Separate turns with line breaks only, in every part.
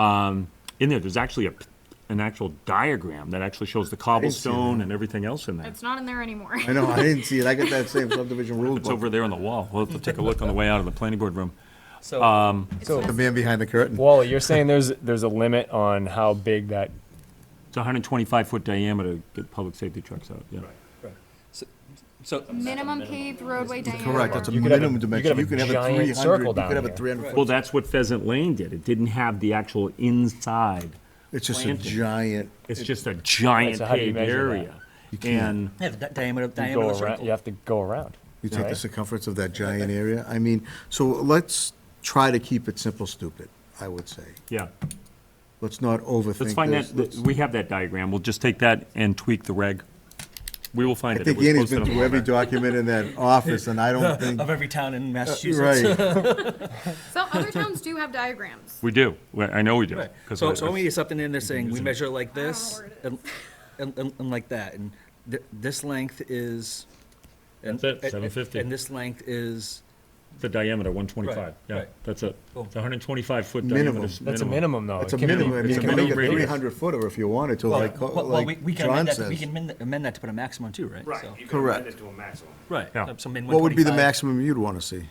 um, in there, there's actually a, an actual diagram that actually shows the cobblestone and everything else in there.
It's not in there anymore.
I know, I didn't see it. I got that same subdivision rule
It's
book.
over there on the wall. We'll have to take a look on the way out of the planning board room.
So,
The man behind the curtain.
Wally, you're saying there's, there's a limit on how big that,
It's a hundred and twenty-five foot diameter to get public safety trucks out, yeah.
So,
Minimum paved roadway diameter.
Correct, that's a
You could have a-
minimum
you could
dimension.
have a
You can have a
giant
three hundred,
circle
you could
down
have a
here.
three hundred
Well,
foot.
that's what Pheasant Lane did. It didn't have the actual inside.
It's just a
planted.
giant,
It's just a giant
so how do you
paved
measure that?
area. And
yeah, the di- diameter,
you
diameter
go
of
around,
circle.
you have to go around.
you take the
right?
circumference of that giant area. I mean, so let's try to keep it simple, stupid, I would say.
Yeah,
Let's not overthink
let's find
this.
that, th- we have that diagram. We'll just take that and tweak the reg. We will find
I
it. It
think
was
Annie's
posted
been
on the
through every
website.
document in that office, and I don't think,
Of every town in Massachusetts.
right.
Some other towns do have diagrams.
We do. We- I know we do.
Right.
'cause
So,
I-
so when we get something in there saying, we measure like
don't know
this,
where it
and, and, and- and like that, and th- this length is. and-
That's it,
and-
750.
And this length is,
The diameter, one twenty-five.
Right,
Yeah,
right.
that's it.
Cool.
It's hundred and twenty-five foot
Minimum.
diameter. is
That's a minimum though.
It's a
Oh, It can be-
minimum, I mean,
it's a
you can make a
minimum radius.
three hundred footer if you wanted to,
well,
like, uh,
well, we, we
like
can amend
John
that, we can
says.
amend, amend that to put a maximum too, right?
Right,
So-
you can
Correct.
amend it to a maximum.
Right.
Yeah.
so min
What would be the
125.
maximum you'd want to see?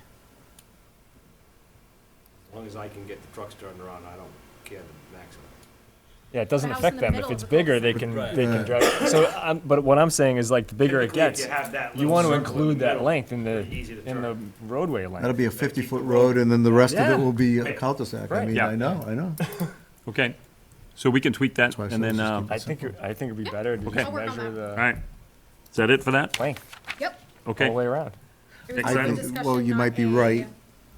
As long as I can get the trucks turned around, I don't care the maximum.
Yeah, it doesn't
House in
affect
the
them.
middle
If
of
it's
the cul-de-sac.
bigger, they can,
Right.
they can drive. So, um, but what I'm saying is like, the bigger it
Typically, if
gets,
you have that
you
little
want to
circle in the
include that
middle,
length in the,
pretty easy to
in the
turn.
roadway length.
That'll be a fifty-foot road, and then the rest of
Yeah.
it will be a cul-de-sac. I
Right.
mean,
Yeah.
I know, I know.
Okay, so we can tweak that
why I
and
said
then,
just
um,
keep
I think, it- I think it'd be better to
I'll
just
work on
measure
that.
all
the
right. Is that it for that?
length
Yep.
all the way
Okay,
around.
It was
I
just a
think-
discussion,
well, you
not
might be
a
right.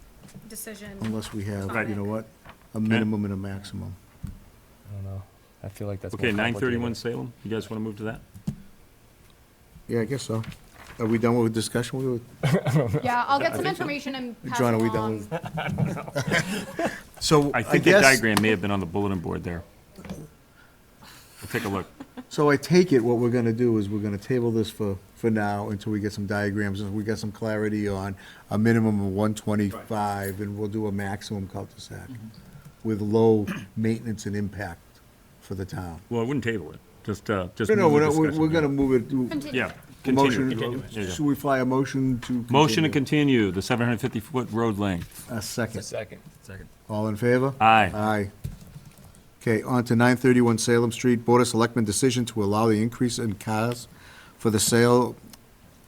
Decision.
Unless we have,
Right.
you know what, a minimum and a maximum.
I don't know. I feel like that's more
okay, nine thirty-one
complicated.
Salem, you guys want to move to that?
Yeah, I guess so. Are we done with discussion? We were-
Yeah, I'll get some information and pass
John, are we
along.
done So
I
I
think that
guess,
diagram may have been on the bulletin board there. We'll take a look.
so I take it what we're gonna do is we're gonna table this for, for now until we get some diagrams, and we get some clarity on a minimum of one twenty-five, and we'll do a maximum cul-de-sac with low maintenance and impact for the town.
Well, I wouldn't table it, just, uh, just.
No, no,
move the
we're, not- we're,
discussion,
we're
yeah.
gonna move it.
Continue.
Yeah,
Motion-
continue. There you
Should
go.
we fly a motion to?
Motion to continue the seven hundred fifty foot road length.
A second.
Second.
All in favor?
Aye.
Aye. Okay, on to 931 Salem Street, Board of Selectmen decision to allow the increase in cars for the sale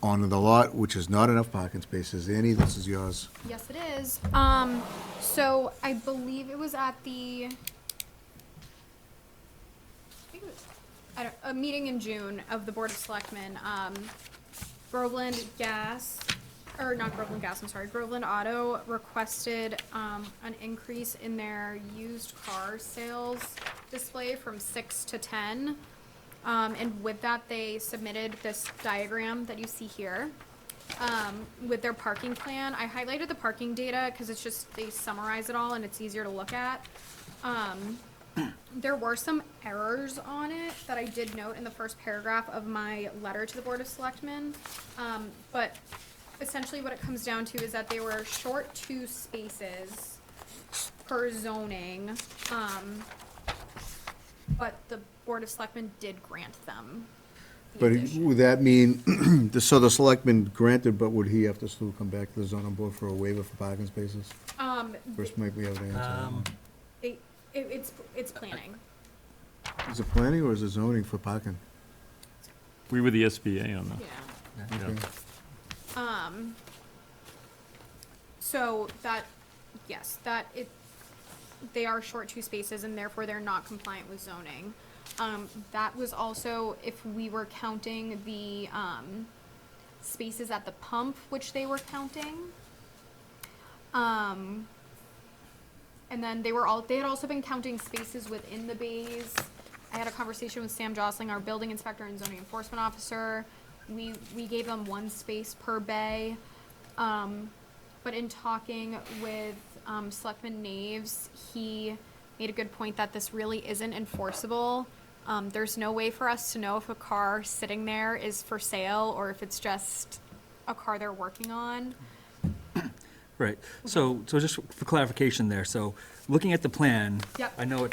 on the lot, which is not enough parking spaces. Annie, this is yours.
Yes, it is. Um, so I believe it was at the, I think it was at a, a meeting in June of the Board of Selectmen, um, Groveland Gas, or not Groveland Gas, I'm sorry, Groveland Auto requested, um, an increase in their used car sales display from six to ten. Um, and with that, they submitted this diagram that you see here um, with their parking plan. I highlighted the parking data because it's just, they summarize it all and it's easier to look at. Um, there were some errors on it that I did note in the first paragraph of my letter to the Board of Selectmen. Um, but essentially what it comes down to is that they were short two spaces per zoning. Um, but the Board of Selectmen did grant them. the
But
addition.
would that mean, the- so the selectman granted, but would he have to still come back to the zoning board for a waiver for parking spaces?
Um,
First, might we have an answer?
Um,
It, it, it's, it's planning.
Is it planning or is it zoning for parking?
We were the SBA on that.
Yeah.
Yeah.
Um, so that, yes, that it, they are short two spaces and therefore they're not compliant with zoning. Um, that was also if we were counting the, um, spaces at the pump, which they were counting. Um, and then they were all, they had also been counting spaces within the bays. I had a conversation with Sam Jostling, our building inspector and zoning enforcement officer. We, we gave them one space per bay. Um, but in talking with, um, Selectman Naves, he made a good point that this really isn't enforceable. Um, there's no way for us to know if a car sitting there is for sale or if it's just a car they're working on.
Right, so, so just for clarification there, so, looking at the plan.
Yep.
I know it